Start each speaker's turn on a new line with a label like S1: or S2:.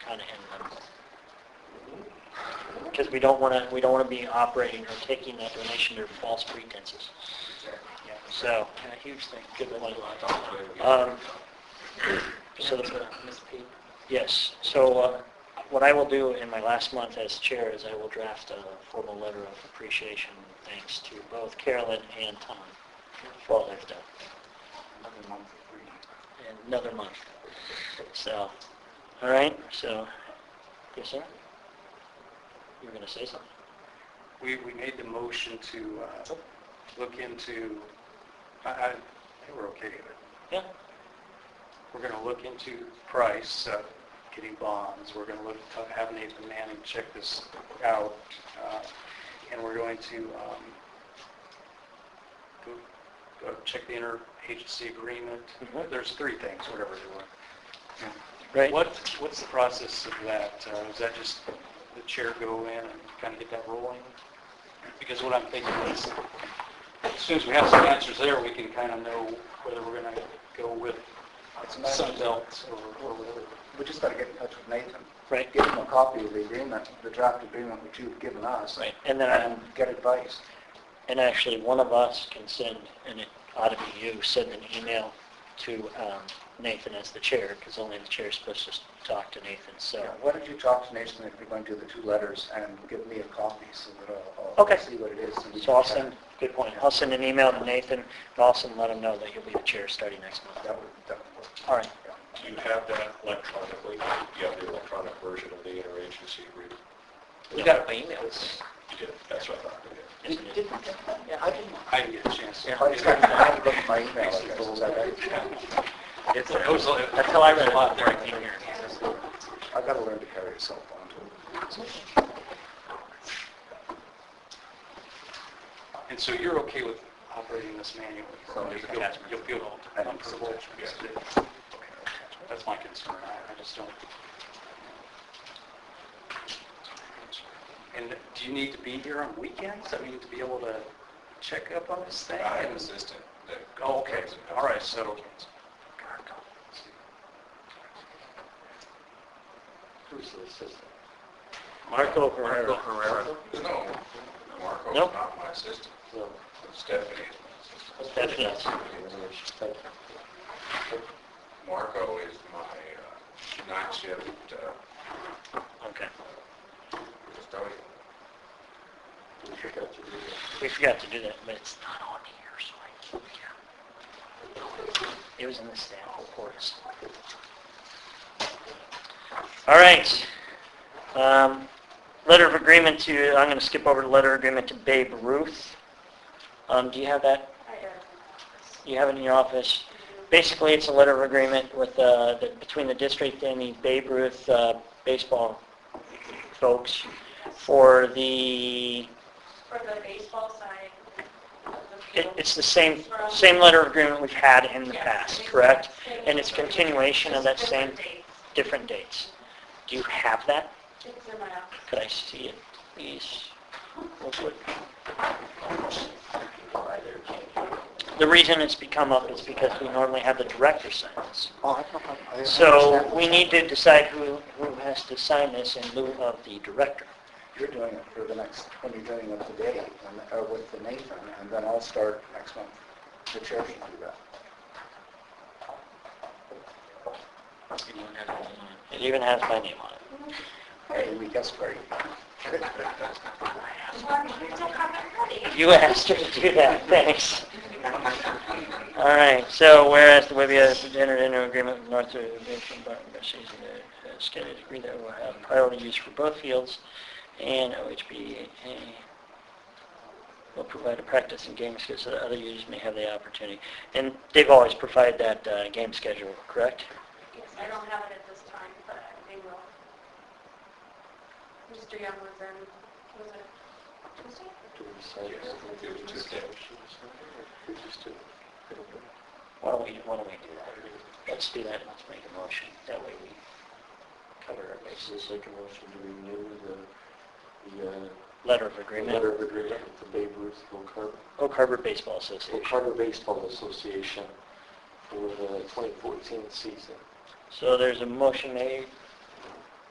S1: trying to end them. Because we don't want to, we don't want to be operating or taking that donation under false pretenses. Yeah, So,
S2: And a huge thing.
S1: good point.
S2: Um,
S1: Um, So,
S2: and,
S1: the-
S2: uh, Ms. P.
S1: yes, so uh, what I will do in my last month as chair is I will draft a formal letter of appreciation and thanks to both Carolyn and Tom for all they've done.
S2: Another month of reading.
S1: in another month. So, all right, so, yes, sir? You were going to say something?
S3: We, we made the motion to uh, look into, I, I I think we're okay with it.
S1: Yeah,
S3: We're going to look into price of getting bonds. We're going to look, have Nathan Manning check this out. uh, And we're going to um, go- go check the interagency agreement.
S1: Mhm.
S3: There's three things, whatever they were.
S1: right?
S3: What, what's the process of that? Uh, Is that just the chair go in and kind of get that rolling? Because what I'm thinking is, as soon as we have some answers there, we can kind of know whether we're going to go with something else or or whatever.
S4: We just got to get in touch with Nathan.
S1: Right.
S4: Give him a copy of the agreement, the draft agreement which you've given us.
S1: Right, and then I-
S4: get advice.
S1: And actually, one of us can send, and it ought to be you, send an email to um, Nathan as the chair, because only the chair is supposed to talk to Nathan, so.
S4: Yeah, Why don't you talk to Nathan if you're going to do the two letters and give me a copy so that I'll- I'll
S1: Okay.
S4: see what it is. and we
S1: So
S4: can
S1: I'll
S4: check.
S1: send, good point, I'll send an email to Nathan, and I'll also let him know that you'll be the chair starting next month.
S4: That would, that would work.
S1: All right,
S4: Yeah.
S5: Do you have that electronically? Do you have the electronic version of the interagency agreement?
S2: We got it by emails.
S5: You did, that's what I thought. okay.
S1: yes, it is.
S2: Yeah, I didn't.
S3: I didn't get a chance.
S4: If I just got- I had to look at my email address, is that right?
S3: It's, it was, a-
S1: That's how I read
S3: there's
S1: it.
S3: a lot there.
S1: Right in here.
S4: I've got to learn to carry a cell phone too.
S3: And so you're okay with operating this manually?
S4: So there's
S3: You'll-
S4: attachments.
S3: You'll feel
S4: I think so.
S3: comfortable.
S4: Yeah.
S3: That's my concern. I I just don't. And do you need to be here on weekends? I mean, to be able to check up on this thing?
S5: I have an assistant that.
S3: Oh, okay. All right, so-
S2: Who's the assistant?
S1: Marco Herrera.
S5: No, Marco's
S1: Nope.
S5: not my assistant. Stephanie is my
S1: Stephanie.
S5: assistant. Marco is my uh, night shift uh,
S1: Okay,
S5: custodian.
S1: we forgot to do that, but it's not on here, so I can't. It was in the staff reports. All right. Um, Letter of agreement to, I'm going to skip over to letter agreement to Babe Ruth. Um, Do you have that? You have it in your office. Basically, it's a letter of agreement with, uh, the- between the district and the Babe Ruth uh, baseball folks for the,
S6: For the baseball side of the
S1: it-
S6: field.
S1: it's the same, same letter of agreement we've had in the past, correct? And it's continuation of that
S6: Just
S1: same, different
S6: different dates.
S1: dates. Do you have that?
S6: It's in my office.
S1: Could I see it, please? Real quick. The reason it's become up is because we normally have the director sign this.
S4: Oh, I don't- I- I don't
S1: So
S4: understand.
S1: we need to decide who, who has to sign this in lieu of the director.
S4: You're doing it for the next, when you're doing it today, and- or with the Nathan, and then I'll start next month. The chair should do that.
S1: It even has my name on it.
S4: Every week, that's great.
S6: Well, you don't have it ready.
S1: You asked her to do that, thanks. All right, so whereas the Webby has entered into an agreement with North Division Barton Garcia has stated agreed that we'll have priority use for both fields, and OHB will provide a practice and game schedule so that other users may have the opportunity. And they've always provided that uh, game schedule, correct?
S6: Yes, I don't have it at this time, but I will. Mr. Young was in, was it Tuesday?
S5: Yes, it was Tuesday.
S1: Why don't we, why don't we do that? Let's do that, and let's make a motion, that way we cover our bases.
S7: Make a motion to renew the, the uh,
S1: Letter of agreement.
S7: letter of agreement with the Babe Ruth Oak Harbor,
S1: Oak Harbor Baseball
S7: Oak
S1: Association.
S7: Harbor Baseball Association for the 2014 season.
S1: So there's a motion made